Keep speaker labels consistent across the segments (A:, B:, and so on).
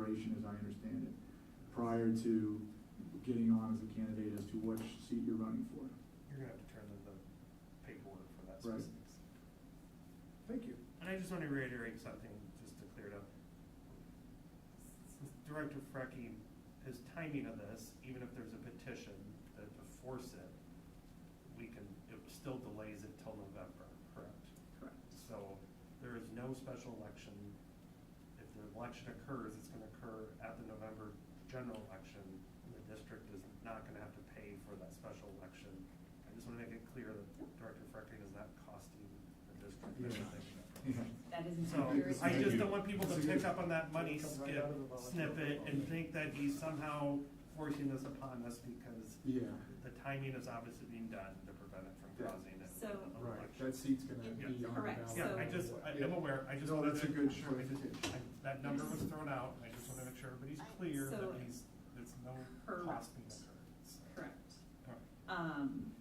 A: I understand it, prior to getting on as a candidate as to which seat you're running for.
B: You're gonna have to turn in the paperwork for that
A: Right.
B: specifics.
A: Thank you.
B: And I just wanna reiterate something, just to clear it up. Since Director Freckie, his timing of this, even if there's a petition that to force it, we can, it still delays it till November, correct?
A: Correct.
B: So there is no special election. If the election occurs, it's gonna occur at the November general election. and The district is not gonna have to pay for that special election. I just wanna make it clear that Director Freckie is not costing the district
A: Yeah.
B: anything.
C: That isn't
B: So
C: accurate.
B: I
A: Thank
B: just
A: you.
B: don't want people to
A: That's a
B: pick
A: good-
B: up on that money
A: Comes right
B: skip
A: out of the volunteer
B: snippet and
A: proposal.
B: think that he's somehow forcing this upon us because
A: Yeah,
B: the timing is obviously being done to prevent it from
A: Yeah.
B: causing an
C: So-
B: election.
A: right, that seat's gonna be on the ballot.
C: Correct,
B: Yeah, I
C: So-
B: just, I- I'm aware, I just.
A: No,
B: wanted
A: that's a
B: to-
A: good
B: sure, I just-
A: clarification.
B: I- That number was thrown out, and I just wanna make sure everybody's clear
C: So-
B: that he's, there's no cost being
C: Correct.
B: incurred. so.
C: Correct.
B: All right.
C: Um,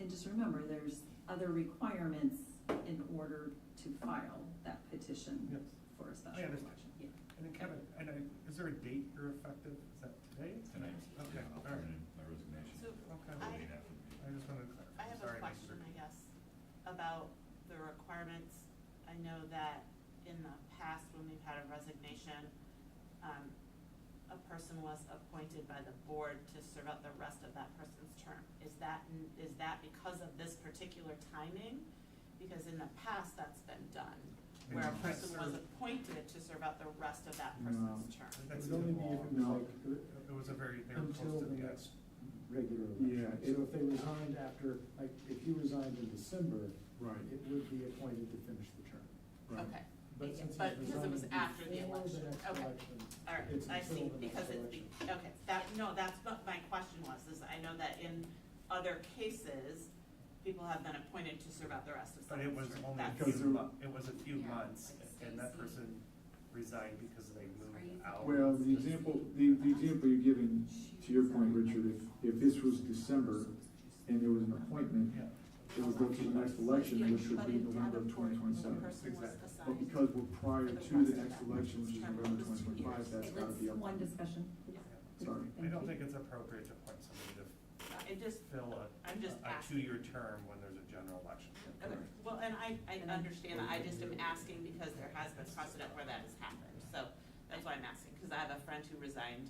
C: and just remember, there's other requirements in order to file that petition
B: Yes.
C: for a special
B: I understand.
C: election. Yeah.
B: And then Kevin, and I, is there a date you're effective, is that today?
D: Tonight,
B: Okay,
D: yeah,
B: all
D: I'll
B: right,
D: turn in my resignation.
E: So
B: okay,
E: I-
D: Late afternoon.
B: I just wanted to clarify.
E: I have
B: Sorry,
E: a
B: Mr.
E: question, I
B: Ricky.
E: guess, about the requirements. I know that in the past, when we've had a resignation, um, a person was appointed by the board to serve out the rest of that person's term. Is that, is that because of this particular timing? Because in the past, that's been done, where a
B: No.
E: person was appointed to serve out the rest of that person's term.
B: That's
F: It would only be if it was
A: No.
F: like,
B: It was a very, they were
F: until
B: close to
F: the
B: the
F: next
B: edge.
F: regular
A: Yeah,
F: election.
A: it-
F: So if they resigned after, like, if you resigned in December,
A: Right,
F: it would be appointed to finish the term.
A: right.
E: Okay,
F: But since
E: But
F: he's
E: because it was
F: resigned
E: after the
F: before
E: election.
F: next
E: Okay.
F: election,
E: all right,
F: it's
E: I
F: until
E: see,
F: the next
E: because it's,
F: election.
E: be- okay, that, no, that's what my question was, is I know that in other cases, people have been appointed to serve out the rest of
B: But
E: someone's
B: it was
E: term.
B: only a
E: That's-
A: Because
B: few,
A: they're-
B: mo- it was a few
C: Yeah,
B: months,
C: like
B: and that
C: Stacy.
B: person resigned because they
C: Are you-
B: moved out.
A: Well, the example, the, the example you're giving, to your point, Richard, if, if this was December and there was an appointment,
B: Yeah.
A: it was up to the next election, which would
E: But
A: be
E: in
A: November
E: Davenport,
A: of twenty
E: the
A: twenty-seven.
E: person was
B: Exactly.
E: assigned.
A: But because we're prior to the next election, which is November twenty twenty-five, that's
C: Okay,
A: gotta be up.
C: let's, one discussion. please.
E: Yeah.
A: Sorry.
B: I don't
C: Thank
E: Mhm.
C: you.
B: think it's appropriate to appoint somebody to
E: It just,
B: fill a,
E: I'm just
B: a
E: asking.
B: two-year term when there's a general election.
E: Okay, well, and I, I understand, that. I just am asking because there has been precedent where that has happened, so that's why I'm asking, because I have a friend who resigned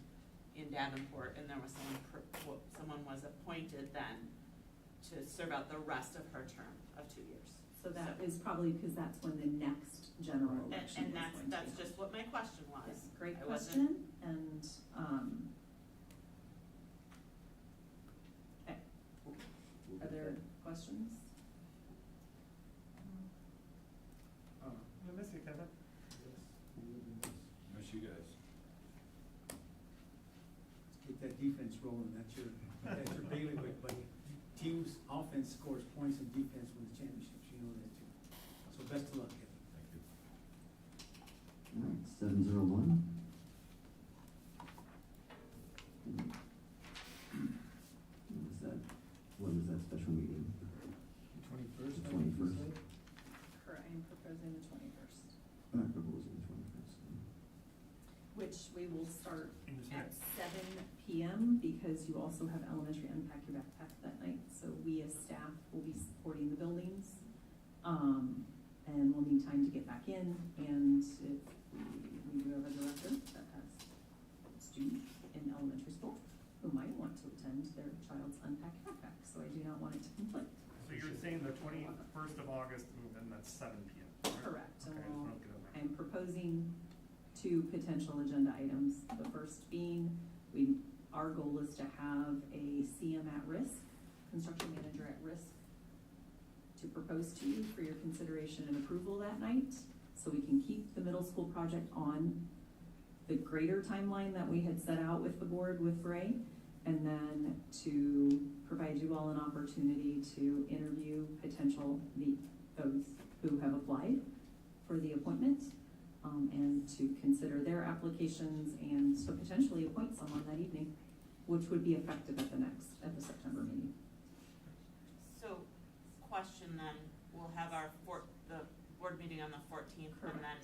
E: in Davenport, and there was someone, pr- w- someone was appointed then to serve out the rest of her term of two years.
C: So that is probably because that's when the next general
A: Right.
E: And,
C: election
E: and
C: is
E: that's,
C: going to
E: that's
C: be.
E: just what my question
C: Yeah,
E: was.
C: Great
E: I wasn't-
C: question, and, um, okay, are there questions?
A: Uh,
B: I miss you, Kevin.
D: Miss you guys.
G: Get that defense rolling, that's your, that's your bailiwick, buddy. Teams offense scores points and defense wins championships, you know that too. So best of luck, Kevin.
D: Thank you.
H: All right, seven zero one. What was that, when was that special meeting?
F: Twenty-first.
H: The 21st.
C: Correct, I am proposing the twenty-first,
H: I proposed on the twenty-first.
C: which we will start
B: In this
C: at
B: minute.
C: seven PM, because you also have elementary unpack your backpack that night, so we as staff will be supporting the buildings. Um, and we'll need time to get back in, and if we- we do have a director that has students in elementary school who might want to attend their child's unpack backpack, so I do not want it to conflict.
B: So you're saying the twenty-first of August, and then that's seven P M.
C: Correct, Um,
B: Okay,
C: and
B: I just
C: we'll-
B: wanna get it right.
C: I'm proposing two potential agenda items. The first being, we, our goal is to have a CM at risk, construction manager at risk, to propose to you for your consideration and approval that night, so we can keep the middle school project on the greater timeline that we had set out with the board with Ray, and then to provide you all an opportunity to interview potential, the, those who have applied for the appointment, um, and to consider their applications and to potentially appoint someone that evening, which would be effective at the next, at the September meeting.
E: So, question then, we'll have our four, the board meeting on the fourteenth, and then